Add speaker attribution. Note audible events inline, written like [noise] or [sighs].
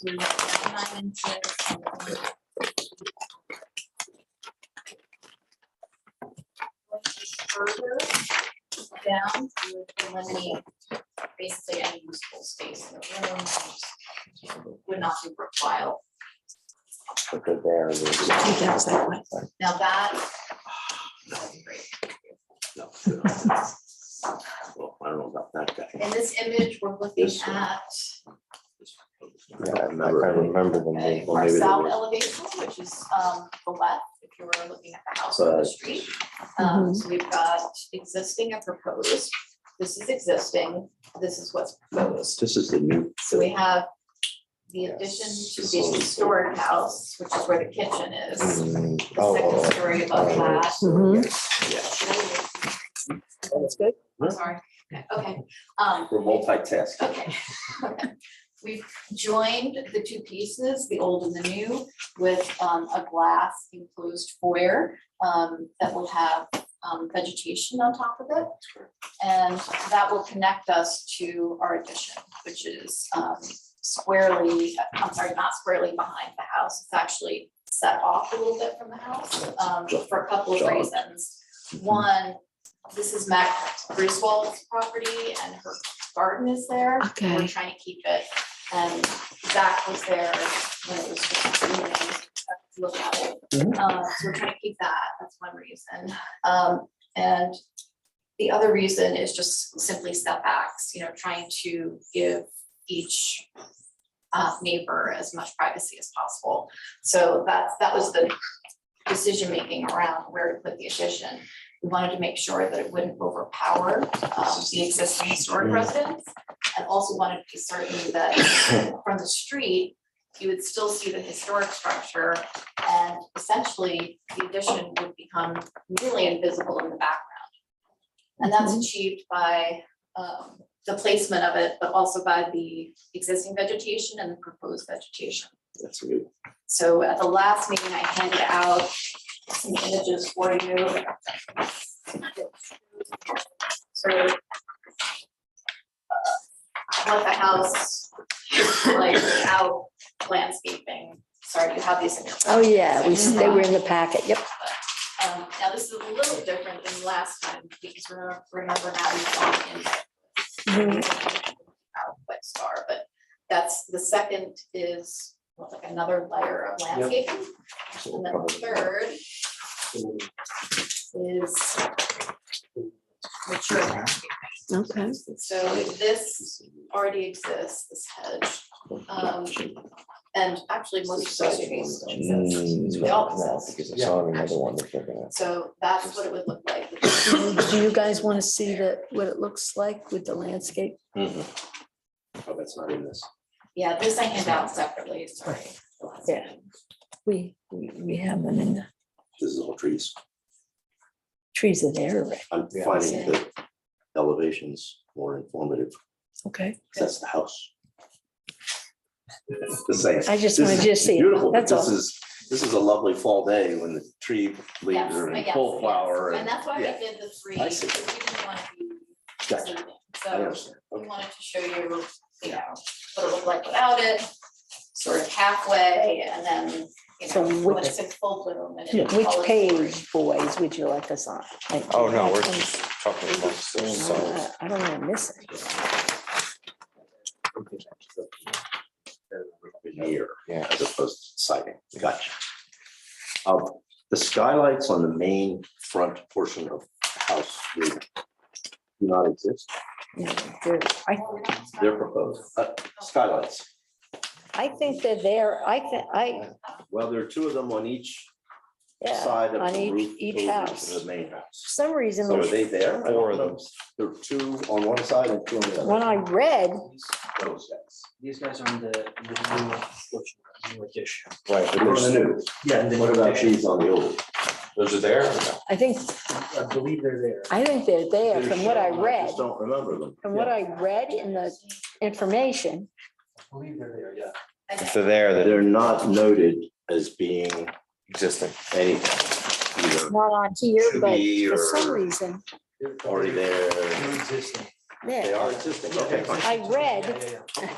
Speaker 1: three, nine inches. Further down, you would eliminate basically any useful space in the room. Would not be worthwhile.
Speaker 2: put it there. and then-
Speaker 3: Take out that one.
Speaker 1: Now that. [sighs] that'd be great.
Speaker 2: no, no. [laughs] Well, I don't know about that guy.
Speaker 1: In this image, we're looking
Speaker 2: This one.
Speaker 1: at
Speaker 2: Yeah, I can't remember them
Speaker 1: uh,
Speaker 2: being, well,
Speaker 1: our
Speaker 2: maybe they
Speaker 1: south
Speaker 2: were.
Speaker 1: elevation, which is um the left, if you were looking at the house on the
Speaker 2: Right.
Speaker 1: street. Um, so we've got existing and proposed. This is existing, this is what's
Speaker 2: No,
Speaker 1: proposed.
Speaker 2: this this is the new.
Speaker 1: So we have the addition
Speaker 2: Yes,
Speaker 1: to
Speaker 2: this
Speaker 1: the
Speaker 2: one.
Speaker 1: historic house, which is where the kitchen is,
Speaker 2: Mm,
Speaker 1: the
Speaker 2: oh,
Speaker 1: second
Speaker 2: oh,
Speaker 1: story above
Speaker 2: oh,
Speaker 1: that.
Speaker 3: Mhm.
Speaker 2: Yeah,
Speaker 3: That's good.
Speaker 1: I'm sorry, okay, um,
Speaker 2: we're multitasking.
Speaker 1: [laughs] Okay. We've joined the two pieces, the old and the new, with um, a glass enclosed foyer um, that will have um, vegetation on top of it. And that will connect us to our addition, which is um, squarely, I'm sorry, not squarely behind the house. It's actually set off a little bit from the house um, for a couple of
Speaker 2: Jog.
Speaker 1: reasons. One, this is Mac Griswold's property and her garden is there. We're
Speaker 3: Okay.
Speaker 1: trying to keep it. And Zach was there when it was just a meeting, uh, look at it.
Speaker 2: Mhm.
Speaker 1: Um, So we're trying to keep that. That's one reason. Um, And the other reason is just simply setbacks, you know, trying to give each uh, neighbor as much privacy as possible. So that's, that was the decision-making around where to put the addition. We wanted to make sure that it wouldn't overpower um, the existing historic
Speaker 2: Mhm.
Speaker 1: residents. And also wanted to be certain that from the street, you would still see the historic structure. And essentially, the addition would become nearly invisible in the background. And that's achieved by um, the placement of it, but also by the existing vegetation and the proposed vegetation.
Speaker 2: That's good.
Speaker 1: So at the last meeting, I handed out some images for you. So uh, what the house, looks like without landscaping, sorry, you have these in your.
Speaker 3: Oh, yeah, we, s- they were in the packet, yep.
Speaker 1: Um, now this is a little different than last time, because remember, remember now we've gone in. Out wet star, but that's, the second is well, like another layer of landscaping,
Speaker 2: So we'll
Speaker 1: and then the
Speaker 2: probably-
Speaker 1: third is. Mature landscaping,
Speaker 3: Okay.
Speaker 1: so this already exists, this hedge, um, and actually most of the trees still exist.
Speaker 2: Mm,
Speaker 1: They all
Speaker 2: no, no,
Speaker 1: exist.
Speaker 2: Because I saw another one that they're gonna.
Speaker 1: So that's what it would look like.
Speaker 3: Do you guys want to see that, what it looks like with the landscape?
Speaker 2: Oh, that's not in this.
Speaker 1: Yeah, this I hand out separately, sorry.
Speaker 3: Yeah. We, we we have them in the
Speaker 2: This is all trees.
Speaker 3: trees in there, right?
Speaker 2: I'm
Speaker 3: Yeah.
Speaker 2: finding the elevations more informative.
Speaker 3: Okay.
Speaker 2: 'cause That's the house. The same.
Speaker 3: I
Speaker 2: This
Speaker 3: just wanted
Speaker 2: is
Speaker 3: you to see it,
Speaker 2: Beautiful, but
Speaker 3: that's
Speaker 2: this
Speaker 3: all.
Speaker 2: is, this is a lovely fall day when the tree
Speaker 1: Yes,
Speaker 2: leaves are in
Speaker 1: yes,
Speaker 2: full
Speaker 1: yes.
Speaker 2: flower
Speaker 1: And
Speaker 2: and.
Speaker 1: that's why we
Speaker 2: yeah.
Speaker 1: did the three,
Speaker 2: I see.
Speaker 1: because we didn't want to be
Speaker 2: Gotcha.
Speaker 1: misleading.
Speaker 2: I
Speaker 1: So
Speaker 2: understand.
Speaker 1: we
Speaker 2: Okay.
Speaker 1: wanted to show you, you know, what it looked like without it, sort of halfway, and then, you
Speaker 3: So
Speaker 1: know, when
Speaker 3: which-
Speaker 1: it's in full bloom and.
Speaker 2: Yeah.
Speaker 1: it's all
Speaker 3: Which
Speaker 1: its glory.
Speaker 3: page, boys, would you like us on? Like,
Speaker 4: Oh, no, we're
Speaker 3: um,
Speaker 4: just talking amongst ourselves.
Speaker 3: uh, I don't want to miss it.
Speaker 2: Year,
Speaker 4: Yeah.
Speaker 2: as opposed to siding, gotcha. Um, the skylights on the main front portion of the house do not exist,
Speaker 3: No, they're- I,
Speaker 1: Oh, we're not-
Speaker 2: they're proposed, uh, skylights.
Speaker 3: I think they're there, I think, I,
Speaker 2: Well, there are two of them on each
Speaker 3: yeah,
Speaker 2: side of
Speaker 3: on
Speaker 2: the
Speaker 3: each-
Speaker 2: roof.
Speaker 3: each
Speaker 2: over to
Speaker 3: house.
Speaker 2: The main
Speaker 3: for
Speaker 2: house.
Speaker 3: some reason,
Speaker 2: So are
Speaker 3: the
Speaker 2: they there? I don't
Speaker 4: Four of
Speaker 2: know.
Speaker 4: them.
Speaker 2: There are two on one side and two on the other.
Speaker 3: one I read,
Speaker 2: Those guys.
Speaker 5: These guys are on the the new, new edition.
Speaker 4: Right, but
Speaker 2: They're on
Speaker 4: there's,
Speaker 2: the new.
Speaker 5: Yeah, the
Speaker 2: What
Speaker 5: new
Speaker 2: about
Speaker 5: edition.
Speaker 2: these on the old?
Speaker 4: those are there? or no?
Speaker 3: I think,
Speaker 5: I believe they're there.
Speaker 3: I think they're there
Speaker 2: They're
Speaker 3: from what I
Speaker 2: shown,
Speaker 3: read.
Speaker 2: just don't remember them.
Speaker 3: From what I read in the information,
Speaker 5: I believe they're there, yeah.
Speaker 4: If
Speaker 1: Okay.
Speaker 4: they're there, they're
Speaker 2: They're not noted as being
Speaker 4: existing.
Speaker 2: anything, either
Speaker 3: not on here,
Speaker 2: to
Speaker 3: but
Speaker 2: be
Speaker 3: for some
Speaker 2: or
Speaker 3: reason,
Speaker 5: They're-
Speaker 2: already there.
Speaker 5: They're existing.
Speaker 2: They
Speaker 3: yeah,
Speaker 2: are existing, okay, fine.
Speaker 3: I read
Speaker 5: Yeah, yeah, yeah.